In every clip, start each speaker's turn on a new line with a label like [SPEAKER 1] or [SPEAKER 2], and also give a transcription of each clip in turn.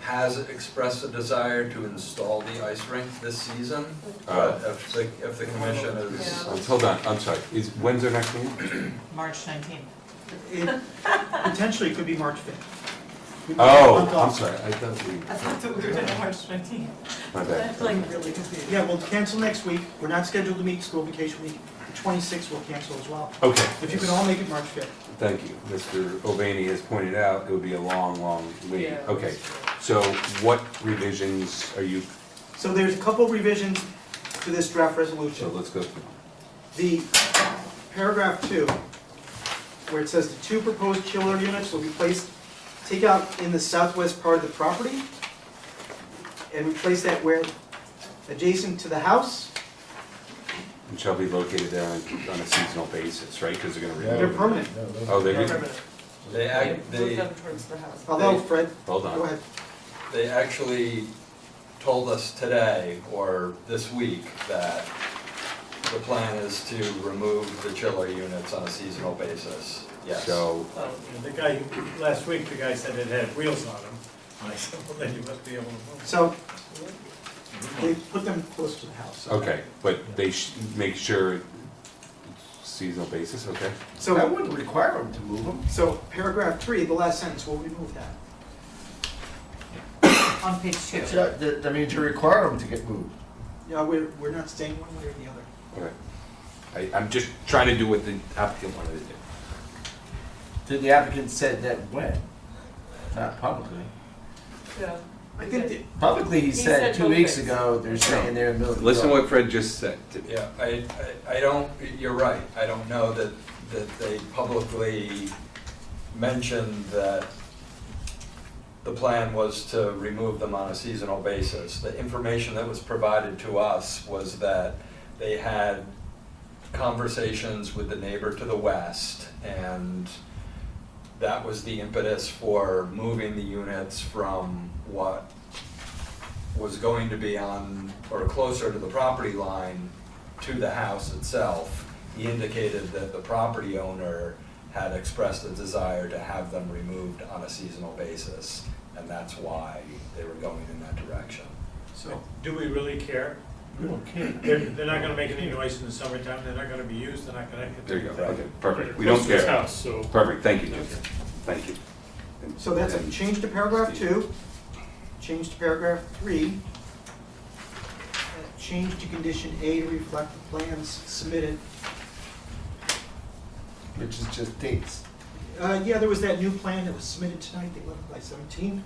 [SPEAKER 1] has expressed a desire to install the ice rink this season.
[SPEAKER 2] Uh,
[SPEAKER 1] But if the, if the commission is,
[SPEAKER 2] um, Hold on, I'm sorry, is, when's our next meeting?
[SPEAKER 3] March nineteenth.
[SPEAKER 4] It potentially could be March fifth.
[SPEAKER 2] Oh, I'm sorry, I thought we,
[SPEAKER 3] I thought that we were doing March nineteenth.
[SPEAKER 2] my bad.
[SPEAKER 3] really confused.
[SPEAKER 4] Yeah, we'll cancel next week, we're not scheduled to meet, school vacation week, the twenty-sixth we'll cancel as well.
[SPEAKER 2] Okay.
[SPEAKER 4] If you can all make it March fifth.
[SPEAKER 2] Thank you. Mr. Ovani has pointed out, it would be a long, long wait.
[SPEAKER 3] Yeah.
[SPEAKER 2] Okay, so what revisions are you,
[SPEAKER 4] So there's a couple revisions to this draft
[SPEAKER 2] so
[SPEAKER 4] resolution.
[SPEAKER 2] let's go through.
[SPEAKER 4] The paragraph two, where it says the two proposed chiller units will be placed, take out in the southwest part of the property, and replace that where adjacent to the house,
[SPEAKER 2] And shall be located there on on a seasonal basis, right? Because they're gonna
[SPEAKER 4] they're
[SPEAKER 2] remove.
[SPEAKER 4] permanent.
[SPEAKER 2] Oh, they
[SPEAKER 4] They're
[SPEAKER 2] did,
[SPEAKER 4] permanent.
[SPEAKER 1] they, ac-
[SPEAKER 3] Move
[SPEAKER 1] they,
[SPEAKER 3] them towards the house.
[SPEAKER 4] Although Fred,
[SPEAKER 2] hold
[SPEAKER 4] go
[SPEAKER 2] on.
[SPEAKER 4] ahead.
[SPEAKER 1] they actually told us today or this week that the plan is to remove the chiller units on a seasonal basis, yes.
[SPEAKER 2] So,
[SPEAKER 3] Oh,
[SPEAKER 5] And The guy, last week, the guy said it had wheels on them. I said, well, then you must be able to move.
[SPEAKER 4] So they put them close to the house.
[SPEAKER 2] okay, but they sh- make sure it's seasonal basis, okay?
[SPEAKER 6] That
[SPEAKER 4] So,
[SPEAKER 6] wouldn't require them to move them.
[SPEAKER 4] so paragraph three, the last sentence, we'll remove that.
[SPEAKER 3] On page two.
[SPEAKER 6] It's not- that- I mean, to require them to get moved.
[SPEAKER 4] Yeah, we're, we're not staying one way or the other.
[SPEAKER 2] Okay. I, I'm just trying to do what the applicant wanted to do.
[SPEAKER 6] The applicant said that when? Not publicly.
[SPEAKER 3] Yeah.
[SPEAKER 4] I think, that-
[SPEAKER 6] Publicly, he
[SPEAKER 3] said
[SPEAKER 6] said two
[SPEAKER 3] both
[SPEAKER 6] weeks
[SPEAKER 3] things.
[SPEAKER 6] ago, they're saying they're in the middle of the.
[SPEAKER 2] Listen to
[SPEAKER 6] yard.
[SPEAKER 2] what Fred just said.
[SPEAKER 1] Yeah, I, I I don't, you're right, I don't know that, that they publicly mentioned that the plan was to remove them on a seasonal basis. The information that was provided to us was that they had conversations with the neighbor to the west, and that was the impetus for moving the units from what was going to be on, or closer to the property line to the house itself. He indicated that the property owner had expressed a desire to have them removed on a seasonal basis, and that's why they were going in that direction.
[SPEAKER 6] So,
[SPEAKER 5] Do we really care?
[SPEAKER 6] we don't care.
[SPEAKER 5] They're, they're not gonna make any noise in the summertime, they're not gonna be used, they're not gonna.
[SPEAKER 2] There you go, okay, perfect. We don't care.
[SPEAKER 5] so.
[SPEAKER 2] Perfect, thank you, Jim. Thank you.
[SPEAKER 4] so that's a change to paragraph two, change to paragraph three, uh, change to condition A to reflect the plans submitted.
[SPEAKER 6] Which is just dates.
[SPEAKER 4] Uh, yeah, there was that new plan that was submitted tonight, they left by seventeen.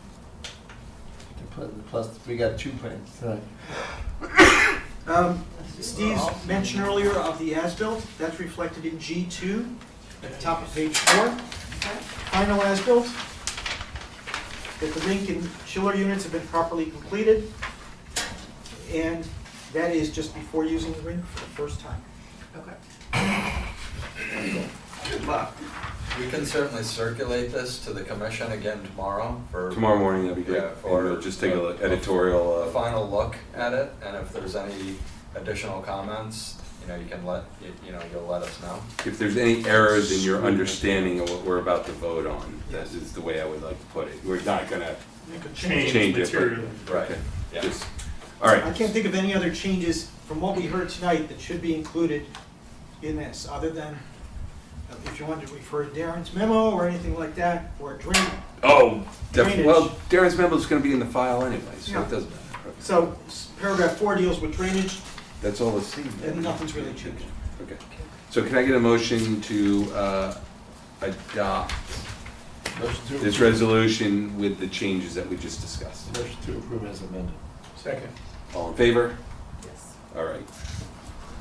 [SPEAKER 6] Plus- Plus, we got two plans tonight.
[SPEAKER 4] Um, Steve's mention earlier of the as-built, that's reflected in G two, at the top of page four. Final as-built, that the rink and chiller units have been properly completed, and that is just before using the rink for the first time.
[SPEAKER 3] Okay.
[SPEAKER 4] Good luck.
[SPEAKER 1] We can certainly circulate this to the commission again tomorrow for
[SPEAKER 2] Tomorrow morning, that'd be great.
[SPEAKER 1] Yeah,
[SPEAKER 2] Or
[SPEAKER 1] or-
[SPEAKER 2] just take a look, editorial,
[SPEAKER 1] a
[SPEAKER 2] uh,
[SPEAKER 1] final look at it, and if there's any additional comments, you know, you can let, you- you know, you'll let us know.
[SPEAKER 2] if there's any errors in your understanding of what we're about to vote on, that is the way I would like to put it. We're not gonna
[SPEAKER 4] Make a change.
[SPEAKER 2] change it. but-
[SPEAKER 5] materially.
[SPEAKER 1] Right,
[SPEAKER 2] Okay,
[SPEAKER 1] yeah.
[SPEAKER 2] just- All right.
[SPEAKER 4] I can't think of any other changes from what we heard tonight that should be included in this, other than uh, if you wanted to refer to Darren's memo or anything like that, or drain.
[SPEAKER 2] Oh, def-
[SPEAKER 4] Drainage.
[SPEAKER 2] well, Darren's memo's gonna be in the file anyway, so
[SPEAKER 4] Yeah.
[SPEAKER 2] it doesn't matter.
[SPEAKER 4] So s- paragraph four deals with drainage,
[SPEAKER 2] That's all it's seen.
[SPEAKER 4] and nothing's really changed.
[SPEAKER 2] Okay. So can I get a motion to uh, adopt
[SPEAKER 6] Motion to
[SPEAKER 2] this
[SPEAKER 6] approve-
[SPEAKER 2] resolution with the changes that we just discussed?
[SPEAKER 6] Motion to approve as amended.
[SPEAKER 5] Second.
[SPEAKER 2] All in favor?
[SPEAKER 3] Yes.
[SPEAKER 2] All right.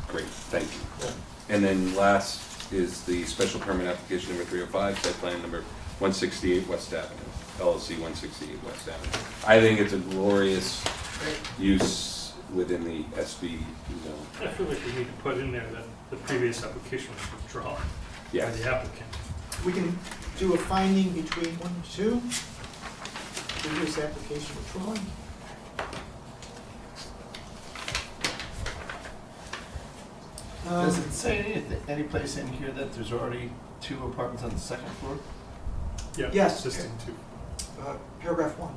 [SPEAKER 2] Great, thank you. And then last is the special permit application number 305, site plan number 168 West Avenue, LLC 168 West Avenue. I think it's a glorious use within the SV zone.
[SPEAKER 7] I feel like we need to put in there that the previous application was withdrawn by
[SPEAKER 2] Yes.
[SPEAKER 7] the applicant.
[SPEAKER 4] We can do a finding between one and two, previous application withdrawn. Um,
[SPEAKER 6] Does it say any, any place in here that there's already two apartments on the second floor?
[SPEAKER 4] Yes.
[SPEAKER 7] Existing two.
[SPEAKER 4] uh, Paragraph one.